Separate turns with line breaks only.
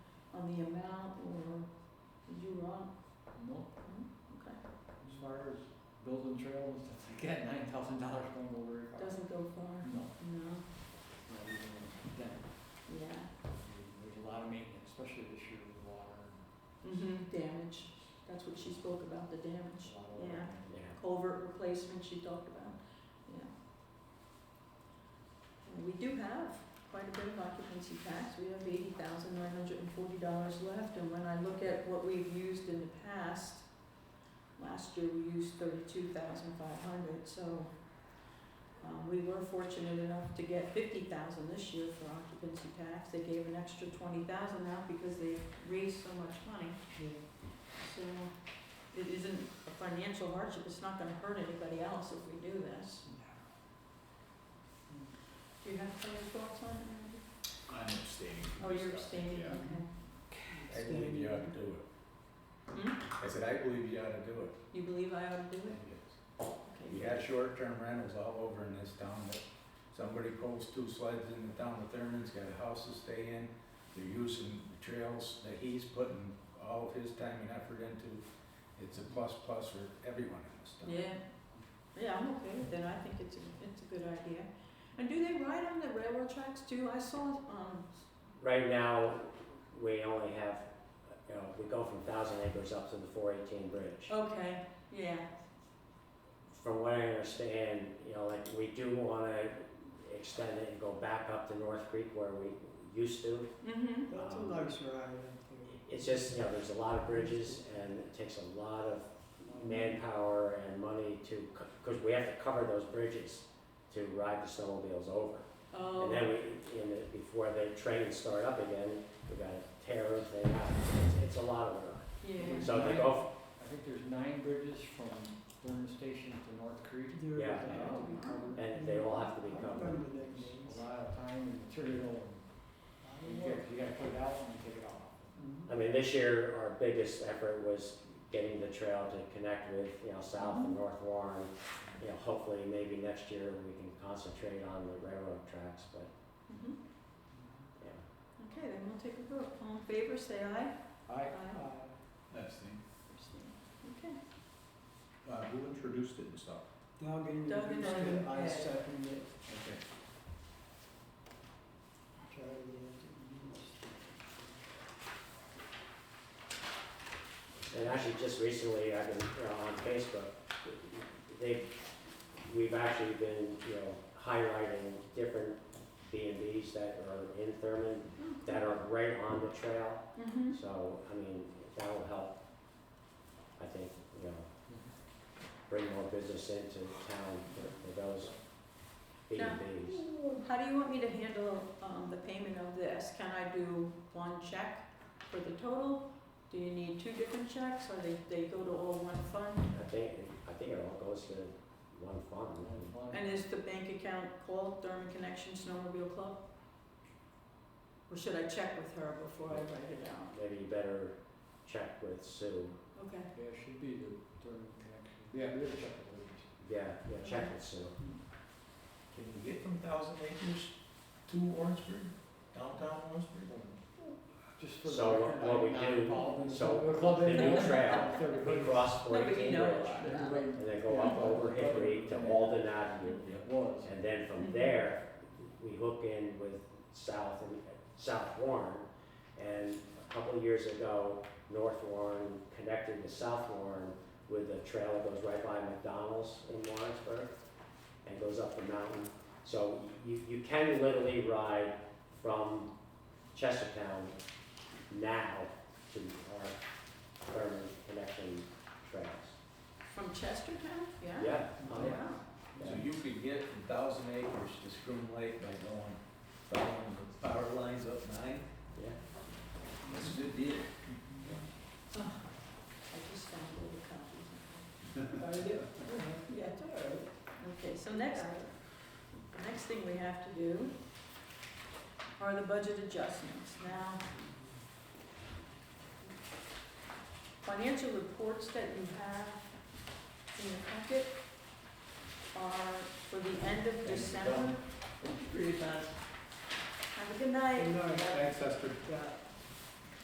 on the amount or did you run?
No,
Okay,
as far as building trails and stuff, like that, nine thousand dollars don't go very far.
doesn't go far,
No,
no,
not even then.
yeah.
There's a lot of maintenance, especially this year with water and
Mm-hmm, damage, that's what she spoke about, the damage.
a lot of.
Yeah.
Yeah.
culvert replacement she talked about, yeah. And we do have quite a bit of occupancy tax, we have eighty thousand nine hundred and forty dollars left, and when I look at what we've used in the past, last year we used thirty-two thousand five hundred, so, um, we were fortunate enough to get fifty thousand this year for occupancy tax, they gave an extra twenty thousand out because they raised so much money. So it isn't a financial hardship, it's not gonna hurt anybody else if we do this. Do you have any thoughts on it?
I'm abstaining. from
Oh,
this
you're
stuff,
abstaining,
yeah.
okay. Hmm?
I believe you ought to do it. I said, I believe you ought to do it.
You believe I ought to do it? Okay.
You got short-term rentals all over in this town, but somebody pulls two sleds in the town of Thurman's, got a house to stay in. They're using the trails that he's putting all of his time and effort into. It's a plus plus for everyone in this town.
Yeah, yeah, I'm okay with it, I think it's a, it's a good idea. And do they ride on the railroad tracks too? I saw, um,
Right now, we only have, you know, we go from thousand acres up to the four eighteen bridge.
okay, yeah,
From what I understand, you know, like, we do wanna extend it and go back up to North Creek where we used to.
mm-hmm,
That's a
um,
nice ride, It's just, you know, there's a lot of bridges and it takes a lot of manpower and money to, cause we have to cover those bridges to ride the snowmobiles over.
oh,
And then we, in the, before the trains start up again, we gotta tear everything out, it's, it's a lot of work.
yeah,
So if they go,
I think there's nine bridges from Burn Station to North Creek.
f- yeah,
They have to be covered.
and they all have to be covered.
It's A lot of time and material and, you gotta- you gotta put it out and take it off.
I mean, this year, our biggest effort was getting the trail to connect with, you know, South and North Warren. You know, hopefully, maybe next year, we can concentrate on the railroad tracks, but,
mhm.
yeah.
Okay, then we'll take a vote. All in favor, say aye.
I, uh,
Aye.
That's the,
Okay.
uh, who introduced it and stuff?
Doug and
Doug and Ellen, yeah.
I second it.
Okay.
Charlie and-
And actually, just recently, I've been you know, on Facebook, they, we've actually been, you know, highlighting different B and Bs that are in Thurman, that are right on the trail,
Mm-hmm.
so, I mean, that will help, I think, you know, bring more business into town for, for those B and Bs.
How do you want me to handle, um, the payment of this? Can I do one check for the total? Do you need two different checks, or they, they go to all one fund?
I think, I think it all goes to one fund, and
And is the bank account called Thurman Connection Snowmobile Club? Or should I check with her before I write it out?
maybe you better check with Sue,
Okay,
Yeah, it should be the Burn connection. Yeah, we have to check the bridges.
yeah, yeah, check with Sue.
Can you get from Thousand Acres to Orangeburg, downtown Orangeburg?
Just for the
So
record,
what
I'm
we
not
do-
involved in the
so
Silver Club
the new
anymore.
trail,
Thirty
We
feet.
cross
No, but
Forty
you
King
know
Bridge,
about it.
Everybody-
and then go up over Hickory to Walden Avenue.
It was.
And then from there, we hook in with South and, South Warren. And a couple of years ago, North Warren connected to South Warren with a trail that goes right by McDonald's in Lawrenceburg and goes up the mountain. So you, you can literally ride from Chestertown now to our Thurman Connection Trails.
from Chestertown, yeah?
Yeah, oh yeah.
Wow,
So you could get from Thousand Acres to Scrum Lake by going, following the power lines up nine,
Yeah.
that's a good deal.
I just found all the copies. Are you? Yeah, it's all right. Okay, so next, the next thing we have to do are the budget adjustments. Now, financial reports that you have in your packet are for the end of December.
Pretty fast.
Have a good night.
Good night.
Thanks, Esther.
Got